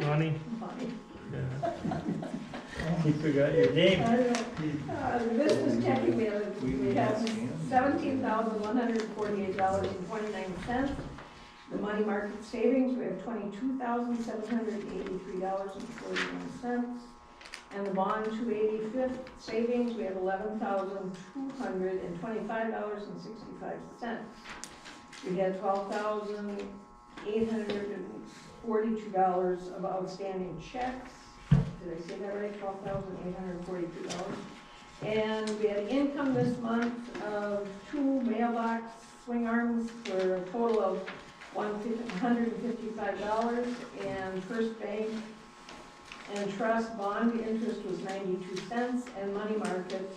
Bonnie? Bonnie. Yeah. You forgot your I name. don't know. Uh, The business checking balance, we have seventeen thousand one hundred forty-eight dollars and twenty-nine cents. The money market savings, we have twenty-two thousand seven hundred eighty-three dollars and forty-one cents. And the bond two eighty-fifth savings, we have eleven thousand two hundred and twenty-five dollars and sixty-five cents. We had twelve thousand eight hundred and forty-two dollars of outstanding checks. Did I say that right? Twelve thousand eight hundred and forty-two dollars. And we had income this month of two mailbox swing arms for a total of one hundred and fifty-five dollars. And First Bank and Trust bond interest was ninety-two cents, and money market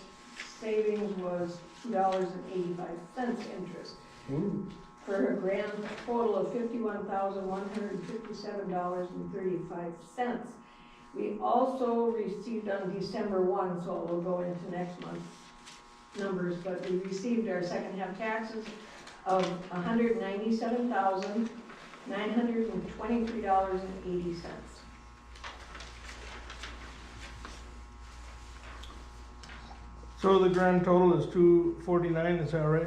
savings was two dollars and eighty-five cents interest Ooh, for a grand total of fifty-one thousand, one hundred and fifty-seven dollars and thirty-five cents. We also received on December one, so it will go into next month's numbers, but we received our second half taxes of hundred ninety-seven thousand, nine hundred and twenty-three dollars and eighty cents. So the grand total is two forty-nine, is that right?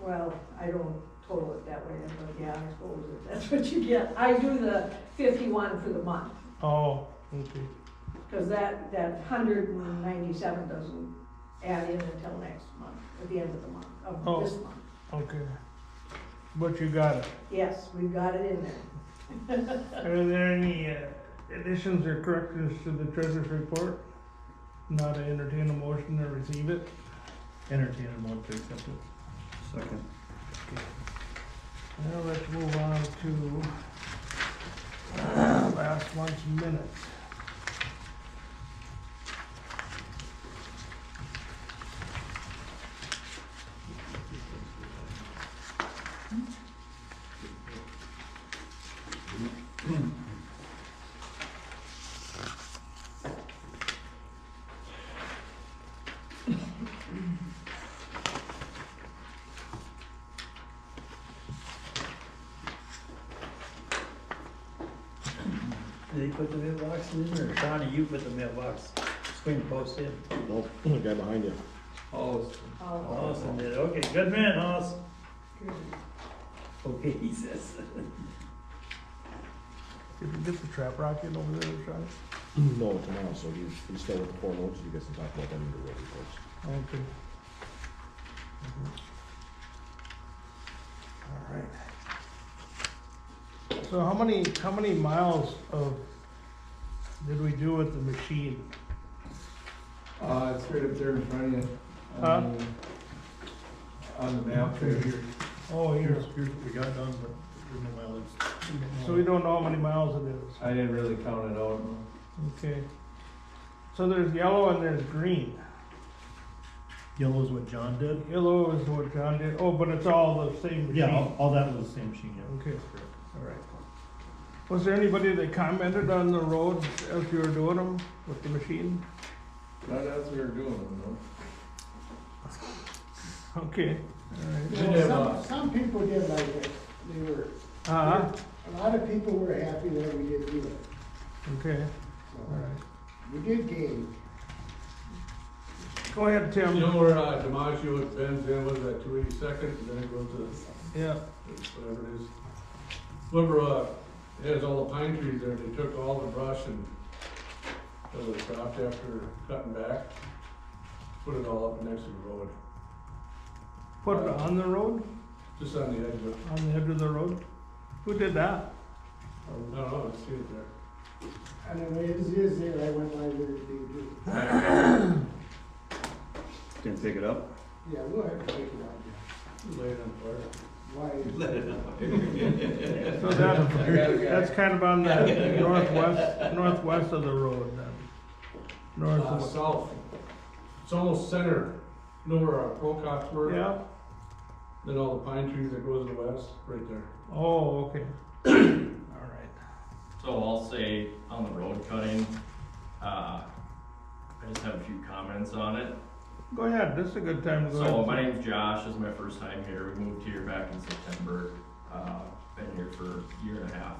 Well, I don't total it that way, but yeah, I suppose if that's what you get. I do the fifty-one for the month. Oh, okay. Because that, that hundred and ninety-seven doesn't add in until next month, at the end of the month, Oh. of this month. Okay. But you got it. Yes, we've got it in there. Are there any uh, additions or corrections to the treasurer's report? Not to entertain a motion to receive it? Entertain a motion to accept it. Second. Now let's move on to uh, last month's minutes. Did they put the mailbox in or Donnie, you put the mailbox, swing post in? Nope, the guy behind you. Oh. I'll- Austin did, okay, good man, Austin. Okay, he says. Did you get the trap rocket over there, Charlie? No, tomorrow, so he's, he's still with the four loads, you guys can talk about that in the road reports. Okay. All right. So how many, how many miles of, did we do with the machine? Uh, it's right up there in front of you. Huh? on the- On the map right here. Oh, here. we got done, but we know mileage. So we don't know how many miles it is. I didn't really count it out. Okay. So there's yellow and there's green. Yellow's what John did? Yellow is what John did. Oh, but it's all the same machine. Yeah, all, all that was the same machine, yeah. Okay, all right. Was there anybody that commented on the roads as you were doing them with the machine? Not as we were doing it, no. Okay, all right. Did have Some, uh, a- some people did like it, they were, Uh-huh, a lot of people were happy that we did do it, okay, all so, right. we did gain. Go ahead, You Tim. know where uh, DiMaggio and Ben's in, was that two eighty-second, and then it goes to Yeah, whatever it is. Whoever, uh, has all the pine trees there, they took all the brush and, that was dropped after cutting back, put it all up next to the road, put it on the road, just on the edge of, on the edge of the road. Who did that? I don't know, I see it there. And the way it is there, I went by there, they do, Didn't pick it up? yeah, we'll have to take it out, Lay it on fire. why, So that, that's kind of on the northwest, northwest of the road then. North Uh, of, south, it's almost center, you know where our Procox were? yeah, Then all the pine trees that goes to the west, right there. oh, okay. All right, So I'll say on the road cutting, uh, I just have a few comments on it. go ahead, this is a good time to go. So ahead. my name's Josh, this is my first time here, we moved here back in September, uh, been here for a year and a half